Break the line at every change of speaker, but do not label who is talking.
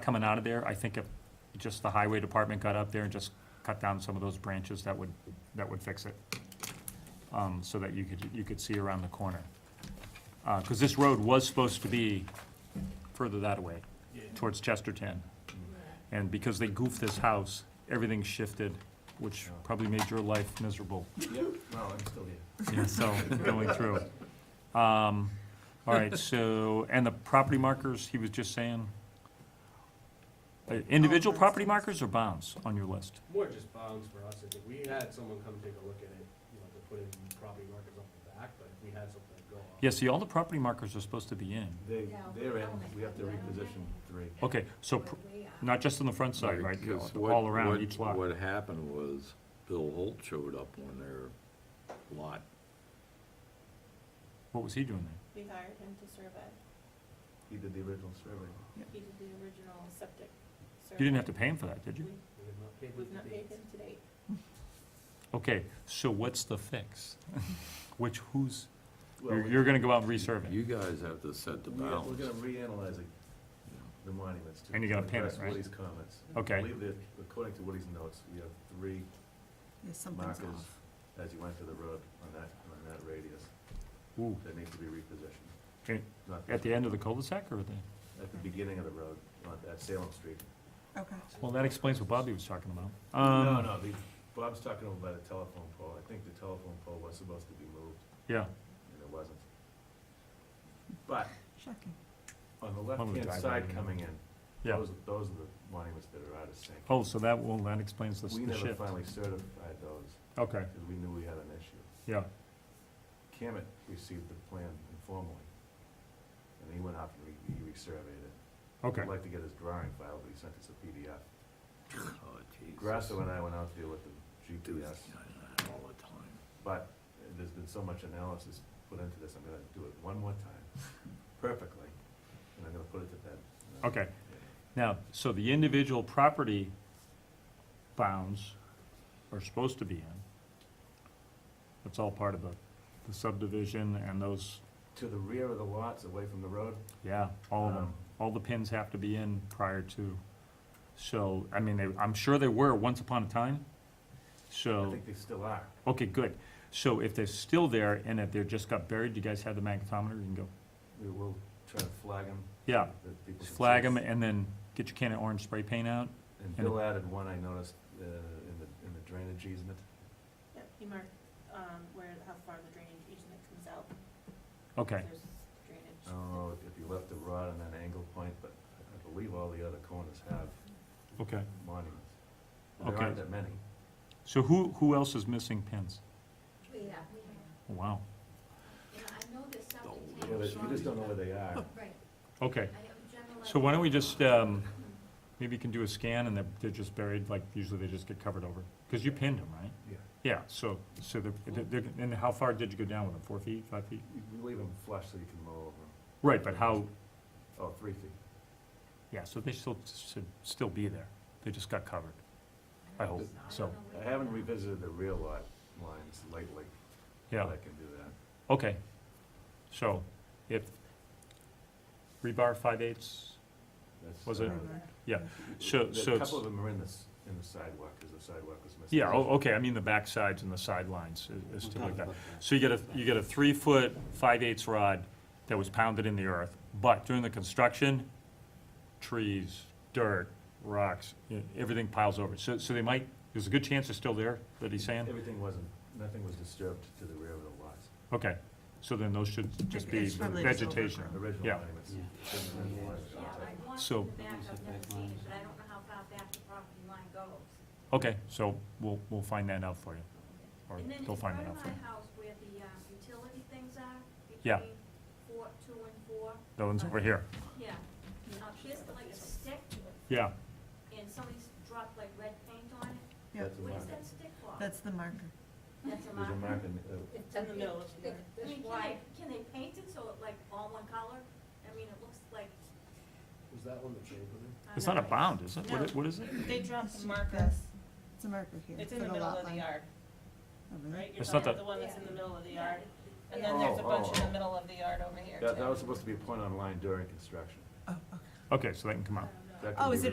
coming out of there, I think if just the highway department got up there and just cut down some of those branches, that would, that would fix it. Um, so that you could, you could see around the corner. Uh 'cause cause this road was supposed to be further that way, towards Chesterton. And because they goofed this house, everything shifted, which probably made your life miserable.
Well, I'm still here.
Yeah, so, going through. Um, all right, so, and the property markers, he was just saying? Uh, Individual property markers or bounds on your list?
More just bounds for us, if we had someone come take a look at it, you know, to put in property markers up the back, but if we had something to go off.
Yeah, see, all the property markers are supposed to be in.
They,
No,
they're in,
only
we have to
one.
reposition three.
Okay, so, pr- not just on the front side, right,
Because what-
all around
what-
each lot?
What happened was Bill Holt showed up on their lot.
What was he doing there?
We hired him to survey.
He did the original survey.
He did the original septic survey.
You didn't have to pay him for that, did you?
Mm-hmm.
We-
We would not pay the
We've not paid
fees.
him to date.
Okay, so what's the fix? Which, who's,
Well,
you're,
we-
you're gonna go out and resurvey?
You guys have to set the
we- We're
bounds.
gonna reanalyze it, the monuments to.
And you're gonna
to
pin it,
address
right?
Woody's comments. I
Okay,
believe that, according to Woody's notes, we have three
Yeah, something's
markers
off.
as you enter the road on that, on that radius
ooh,
that need to be repositioned.
Okay,
Not
at the end of the cul-de-sac or the?
At the beginning of the road, on, at Salem Street.
Okay.
Well, that explains what Bobby was talking about.
No,
Um,
no, the, Bob's talking about the telephone pole. I think the telephone pole was supposed to be moved,
Yeah,
and it wasn't. But
Shocking.
on the
One was
left-hand
driving
side
in.
coming in,
yeah.
Those, those are the monuments that are out of sync.
Oh, so that, well, that explains the s-
We
the
never
shift.
finally certified those,
Okay,
because we knew we had an issue.
yeah,
Camet received the plan informally, and he went out and re- he resurveyed it.
okay.
I'd like to get his drawing file, but he sent us a PDF.
Oh, Jesus.
Grasso and I went out there with the
Do
GPS,
that all the time.
but there's been so much analysis put into this, I'm gonna do it one more time, perfectly, and I'm gonna put it to bed.
Okay. Now, so the individual property bounds are supposed to be in. That's all part of the the subdivision and those,
To the rear of the lots, away from the road,
yeah, all of them.
Um,
All the pins have to be in prior to. So, I mean, they, I'm sure they were once upon a time, so.
I think they still are.
Okay, good. So if they're still there and if they're just got buried, you guys have the magnetometer, you can go,
We will try to flag them.
yeah,
that people can
flag
see.
them and then get your can of orange spray paint out.
And Bill added one I noticed uh, in the, in the drainage easement.
Yep, he marked, um, where, how far the drainage easement comes out.
Okay, Oh.
There's drainage.
I don't know if you left the rod on that angle point, but I believe all the other corners have
okay.
monuments. And There
Okay.
aren't that many.
So who, who else is missing pins? Oh,
Yeah, yeah.
Wow,
Yeah, I know there's something.
Don't.
You know, that- You just don't know where they are.
Right,
okay.
I am generalizing.
So why don't we just, um, maybe you can do a scan and they're, they're just buried, like usually they just get covered over. Cause you pinned them, right?
Yeah.
Yeah, so, so they're, they're, they're- and how far did you go down with them? Four feet, five feet?
You you leave them flush so you can mow over them.
Right, but how,
Oh, three feet.
yeah, so they still, should still be there. They just got covered. I hope, so,
I haven't revisited the real lot lines lately,
yeah.
but I can do that.
Okay, so if rebar five eighths,
That's,
Was it-
uh,
yeah,
there-
so,
there-
so
A
it's,
couple of them are in the, s- in the sidewalk, because the sidewalk was missing.
yeah, oh, okay, I mean the back sides and the sidelines is- is stuff like that.
We'll talk about
So you get a, you get a three-foot, five-eighths rod that was pounded in the earth, but during the construction, trees, dirt, rocks, e- everything piles over. So, so they might, there's a good chance they're still there, that he's saying?
Everything wasn't, nothing was disturbed to the rear of the lots,
Okay, so then those should just be
It's probably just
vegetation.
overgrown.
original
Yeah.
monuments. Original monuments.
Yeah, I've watched
So-
in the back, I've never seen it, but I don't know how far back the property line goes.
Okay, so we'll, we'll find that out for you, or
And then
they'll
in
find
front
that
of
out for
my
you.
house where the um, utility things are,
Yeah.
between four, two and four,
That one's over here.
yeah. Uh, there's like a stick,
Yeah,
and somebody's dropped like red paint on it,
Yeah,
That's a
what is
marker.
that stick for?
that's the marker.
That's a
There's a
marker.
mark in, the- uh,
It's in the middle of
I
the.
mean, can they, can they paint it so it like all one color? I mean, it looks like.
Was that one the trade with him?
I
it's
don't
not a
know.
bound, is it? What i- What is it?
They
dropped the markers. It's a marker here.
Oh, It's
for
in the middle
lot
of the
line.
yard,
Oh, really?
right? You're
It's not
talking about
the-
the one that's in the middle of the yard.
Yeah.
And
Yeah.
then there's a
Oh,
bunch
oh,
in
oh.
the middle of the yard over here
that, that was
too.
supposed to be a point on line during construction.
Oh, okay.
Okay, so that can come
I
out.
don't know.
that could
Oh,
be
is it